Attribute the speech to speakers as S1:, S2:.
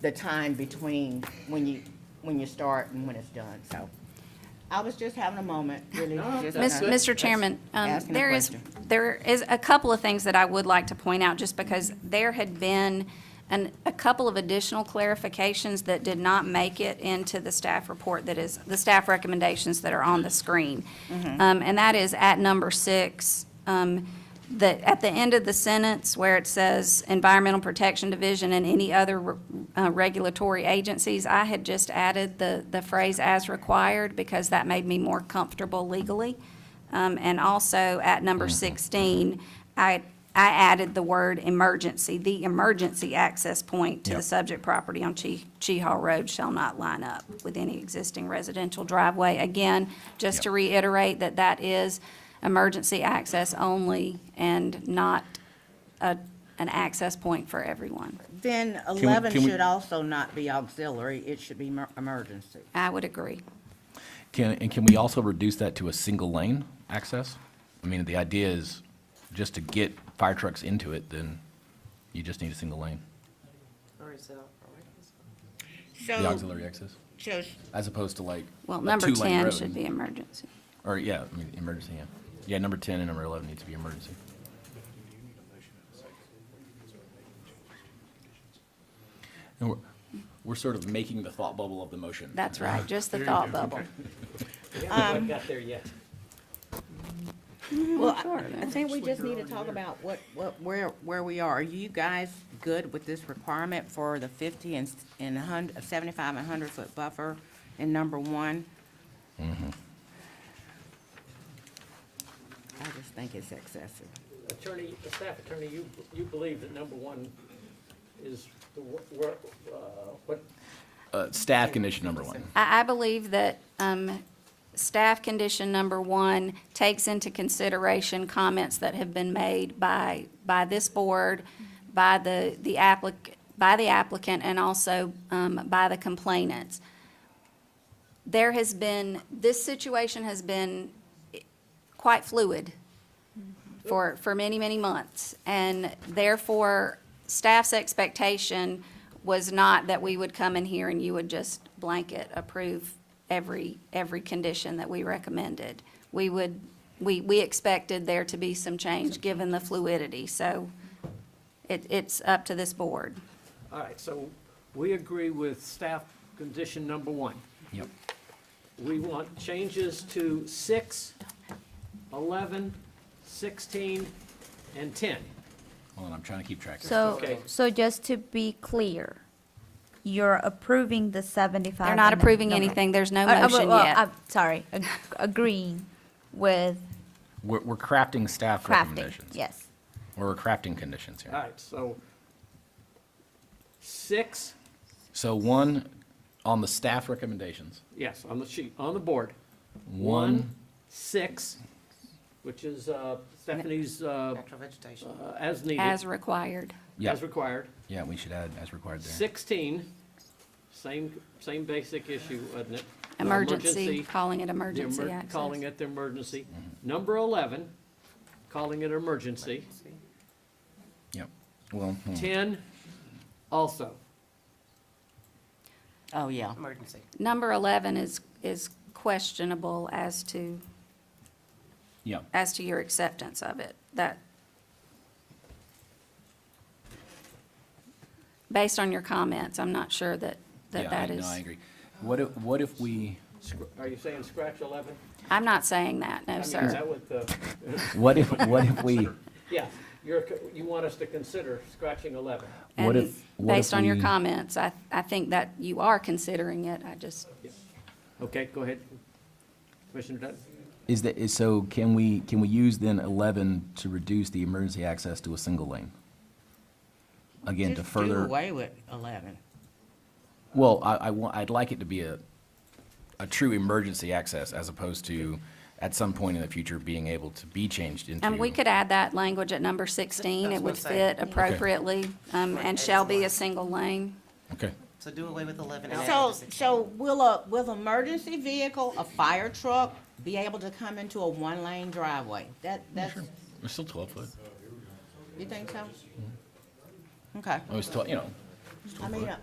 S1: the time between when you, when you start and when it's done, so. I was just having a moment, really. just
S2: Miss-
S1: kinda-
S2: Mr. Chairman, um,
S1: asking a
S2: there is, there is a couple of things that I would like to point out, just because there had been an, a couple of additional clarifications that did not make it into the staff report that is, the staff recommendations that are on the screen.
S1: Mm-hmm.
S2: Um, And that is at number six, um, the, at the end of the sentence where it says Environmental Protection Division and any other re- uh, regulatory agencies, I had just added the, the phrase as required because that made me more comfortable legally. Um, and also at
S3: Mm-hmm.
S2: number sixteen, I, I added the word emergency, the emergency access point to the
S3: Yep.
S2: subject property on Chi, Chi Hall Road shall not line up with any existing residential driveway. Again, just to
S3: Yep.
S2: reiterate that that is emergency access only and not a, an access point for everyone.
S1: Then eleven
S3: can we-
S1: should also not be auxiliary, it should be mer- emergency.
S2: I would agree.
S3: Can, and can we also reduce that to a single lane access? I mean, the idea is just to get fire trucks into it, then you just need a single lane,
S4: Or is it all
S3: the
S1: So,
S3: auxiliary access,
S1: so
S3: as opposed to like
S2: Um, Well,
S3: a
S2: number
S3: two-lane
S2: ten
S3: road.
S2: should be emergency.
S3: Or, yeah, I mean, emergency, yeah. Yeah, number ten and number eleven need to be emergency. And we're, we're sort of making the thought bubble of the motion.
S2: That's right, just the thought bubble.
S5: haven't got there yet.
S1: Well, I- I think we just need to talk about what, what, where, where we are. Are you guys good with this requirement for the fifty and, s- and a hun, seventy-five and hundred foot buffer in number one? I just think it's excessive.
S5: Attorney, the staff attorney, you, you believe that number one is the, wo- wor- uh, what,
S3: Uh, staff condition number one.
S2: I, I believe that um, staff condition number one takes into consideration comments that have been made by, by this board, by the, the applicant, by the applicant, and also um, by the complainants. There has been, this situation has been quite fluid for, for many, many months. And therefore, staff's expectation was not that we would come in here and you would just blanket approve every, every condition that we recommended. We would, we, we expected there to be some change, given the fluidity. So it, it's up to this board.
S5: all right, so we agree with staff condition number one.
S3: Yep.
S5: We want changes to six, eleven, sixteen, and ten.
S3: Hold on, I'm trying to keep track. of this.
S5: Okay.
S6: So, so just to be clear, you're approving the Uh, 75?
S2: They're not approving anything. There's no motion yet.
S6: Sorry, ag- agreeing with
S3: We're, we're crafting staff
S6: crafting,
S3: recommendations.
S6: yes.
S3: Or we're crafting conditions
S5: All
S3: here.
S5: right, so six,
S3: So one, on the staff recommendations,
S5: yes, on the sheet, on the board.
S3: one,
S5: Six, which is uh, Stephanie's, uh,
S4: natural vegetation.
S5: uh, as needed.
S2: As required.
S3: yeah,
S5: As required.
S3: yeah, we should add as required there.
S5: 16, same, same basic issue, wasn't it?
S2: Emergency,
S5: Emergency,
S2: calling it
S5: the emer-
S2: emergency access.
S5: Calling it the emergency. Number 11, calling it emergency.
S3: Yep, well, hmm.
S5: 10, also.
S1: Oh, yeah.
S4: Emergency.
S2: Number 11 is, is questionable as to
S3: yeah,
S2: as to your acceptance of it, that, based on your comments, I'm not sure that, that
S3: yeah, I-
S2: that
S3: no, I
S2: is,
S3: agree. What if, what if we,
S5: Scr- Are you saying scratch 11?
S2: I'm not saying that, no,
S5: I mean, is
S2: sir.
S5: that what the,
S3: what if, what if we,
S5: yeah, you're, co- you want us to consider scratching 11?
S3: what
S2: And
S3: if, what if
S2: Based on your
S3: we-
S2: comments, I, I think that you are considering it, I just,
S5: Okay, go ahead. Commissioner Dutton?
S3: Is that, is, so can we, can we use then eleven to reduce the emergency access to a single lane? Again, to
S1: Just do
S3: further,
S1: away with eleven.
S3: well, I, I want, I'd like it to be a, a true emergency access as opposed to at some point in the future being able to be changed into.
S2: and we could add that language at number 16,
S4: That's
S2: it
S4: what
S2: would
S4: I'm
S2: fit
S4: saying.
S2: appropriately, um, and shall be a single lane.
S3: Okay.
S4: So do away with 11 and add
S1: So,
S4: emergency.
S1: so will a, will emergency vehicle, a fire truck, be able to come into a one-lane driveway? That, that's,
S3: It's still twelve foot.
S1: you think so? Okay.
S3: It was twelve, Oh, you know,
S1: I mean, uh,